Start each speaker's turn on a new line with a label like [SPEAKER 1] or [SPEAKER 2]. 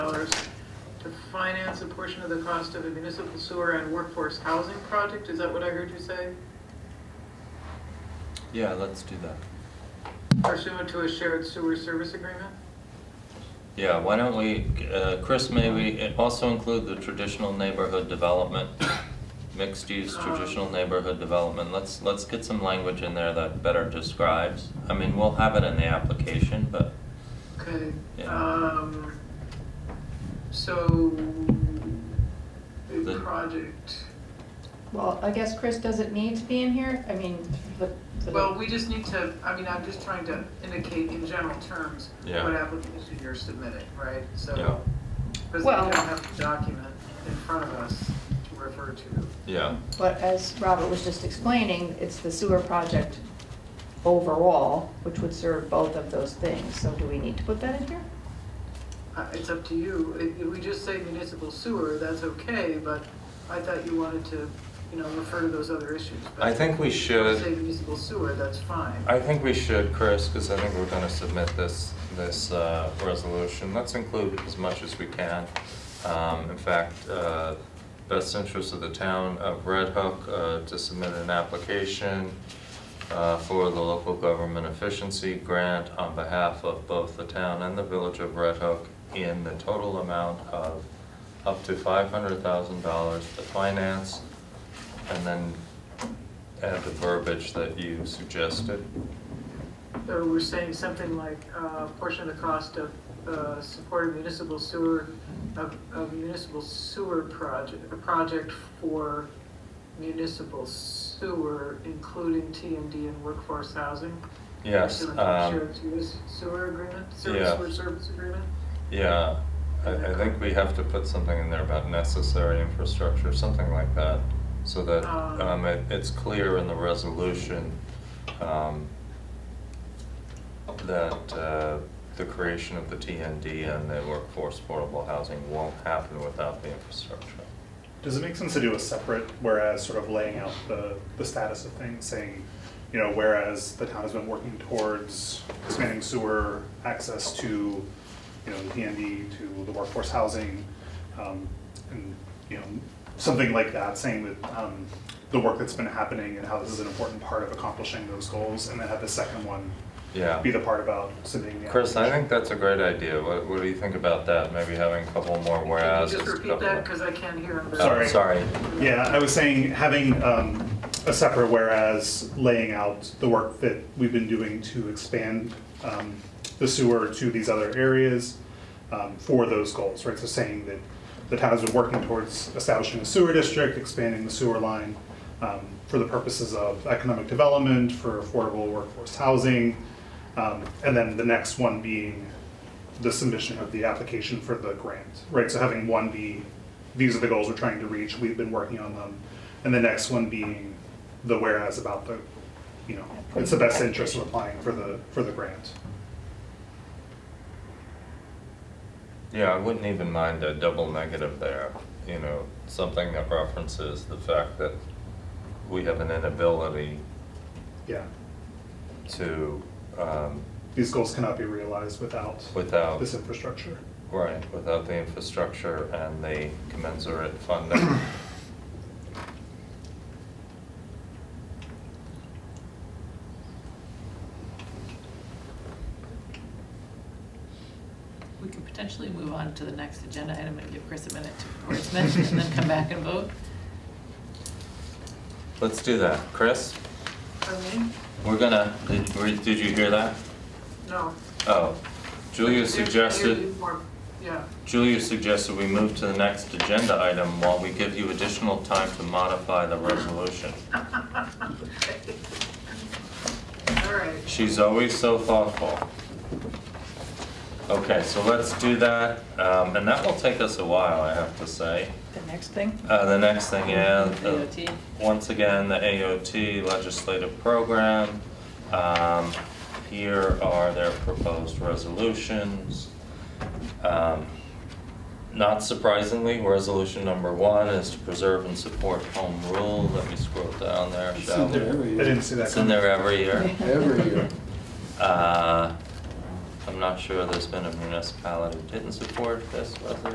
[SPEAKER 1] finance a portion of the cost of a municipal sewer and workforce housing project, is that what I heard you say?
[SPEAKER 2] Yeah, let's do that.
[SPEAKER 1] Pursuant to a shared sewer service agreement?
[SPEAKER 2] Yeah, why don't we, uh, Chris, may we also include the traditional neighborhood development, mixed-use traditional neighborhood development? Let's, let's get some language in there that better describes. I mean, we'll have it in the application, but
[SPEAKER 1] Okay,
[SPEAKER 2] Yeah.
[SPEAKER 1] um, so the
[SPEAKER 2] The-
[SPEAKER 1] project,
[SPEAKER 3] Well, I guess Chris doesn't need to be in here, I mean, the,
[SPEAKER 1] well,
[SPEAKER 3] the,
[SPEAKER 1] we just need to, I mean, I'm just trying to indicate in general terms
[SPEAKER 2] Yeah.
[SPEAKER 1] what application you're submitting, right?
[SPEAKER 2] Yeah.
[SPEAKER 1] So, because we
[SPEAKER 3] Well-
[SPEAKER 1] don't have the document in front of us to refer to.
[SPEAKER 2] yeah,
[SPEAKER 3] but as Robert was just explaining, it's the sewer project overall, which would serve both of those things, so do we need to put that in here?
[SPEAKER 1] Uh, It's up to you. If if we just say municipal sewer, that's okay, but I thought you wanted to, you know, refer to those other issues. but
[SPEAKER 4] I think we
[SPEAKER 1] if you Say
[SPEAKER 4] should,
[SPEAKER 1] municipal sewer, that's fine.
[SPEAKER 4] I think we should, Chris, because I think we're gonna submit this, this, uh, resolution. Let's include as much as we can. Um, in fact, uh, best interest of the town of Red Hook, uh, to submit an application, uh, for the local government efficiency grant on behalf of both the town and the village of Red Hook in the total amount of up to five hundred thousand dollars to finance and then add the verbiage that you suggested.
[SPEAKER 1] So we're saying something like, uh, portion of the cost of, uh, supporting municipal sewer, of, of municipal sewer project, a project for municipal sewer, including TMD and workforce housing.
[SPEAKER 4] Yes,
[SPEAKER 1] Pursuant to the
[SPEAKER 4] um,
[SPEAKER 1] shared sewer- Sewer agreement,
[SPEAKER 4] Yeah.
[SPEAKER 1] sewer, sewer service agreement?
[SPEAKER 4] yeah, I, I think we have to put something in there about necessary infrastructure, something like that. So that,
[SPEAKER 1] Um.
[SPEAKER 4] um, it, it's clear in the resolution, um, that, uh, the creation of the TND and the workforce portable housing won't happen without the infrastructure.
[SPEAKER 5] Does it make sense to do a separate, whereas sort of laying out the, the status of things, saying, you know, whereas the town has been working towards expanding sewer access to, you know, the PND, to the workforce housing, um, and, you know, something like that, saying that, um, the work that's been happening and how this is an important part of accomplishing those goals, and then have the second one
[SPEAKER 4] Yeah.
[SPEAKER 5] be the part about submitting the.
[SPEAKER 4] Chris, I
[SPEAKER 5] application.
[SPEAKER 4] think that's a great idea. What, what do you think about that? Maybe having a couple more
[SPEAKER 1] Can you
[SPEAKER 4] whereas.
[SPEAKER 1] just repeat that, because I can't hear him.
[SPEAKER 5] Sorry.
[SPEAKER 4] Sorry.
[SPEAKER 5] Yeah, I was saying having um, a separate whereas laying out the work that we've been doing to expand um, the sewer to these other areas um, for those goals, right? So saying that the town has been working towards establishing a sewer district, expanding the sewer line um, for the purposes of economic development, for affordable workforce housing, um, and then the next one being the submission of the application for the grant, right? So having one be, these are the goals we're trying to reach, we've been working on them. And the next one being the whereas about the, you know, it's the best interest of applying for the, for the grant.
[SPEAKER 4] Yeah, I wouldn't even mind a double negative there, you know, something that references the fact that we have an inability
[SPEAKER 5] Yeah,
[SPEAKER 4] to, um,
[SPEAKER 5] these goals cannot be realized without
[SPEAKER 4] without,
[SPEAKER 5] this infrastructure.
[SPEAKER 4] right, without the infrastructure and the commensurate funding.
[SPEAKER 6] We could potentially move on to the next agenda item and give Chris a minute to wordsmith and then come back and vote.
[SPEAKER 4] Let's do that. Chris,
[SPEAKER 1] For me?
[SPEAKER 2] we're gonna, did, were- did you hear that?
[SPEAKER 1] No.
[SPEAKER 2] Oh, Julia
[SPEAKER 1] There- there
[SPEAKER 2] suggested,
[SPEAKER 1] is more- Yeah,
[SPEAKER 2] Julia suggested we move to the next agenda item while we give you additional time to modify the resolution.
[SPEAKER 1] all right.
[SPEAKER 2] She's always so thoughtful. Okay, so let's do that, um, and that will take us a while, I have to say.
[SPEAKER 3] The next thing?
[SPEAKER 2] Uh, the next thing, yeah, the-
[SPEAKER 6] AOT.
[SPEAKER 2] once again, the AOT legislative program. Um, here are their proposed resolutions. Um, Not surprisingly, resolution number one is to preserve and support home rule. Let me scroll down there,
[SPEAKER 7] It's
[SPEAKER 2] shall
[SPEAKER 7] in
[SPEAKER 2] we?
[SPEAKER 7] there every
[SPEAKER 5] I
[SPEAKER 7] year.
[SPEAKER 5] didn't see that.
[SPEAKER 2] It's in there every year.
[SPEAKER 7] Every year.
[SPEAKER 2] Uh, I'm not sure there's been a municipality who didn't support this resolution.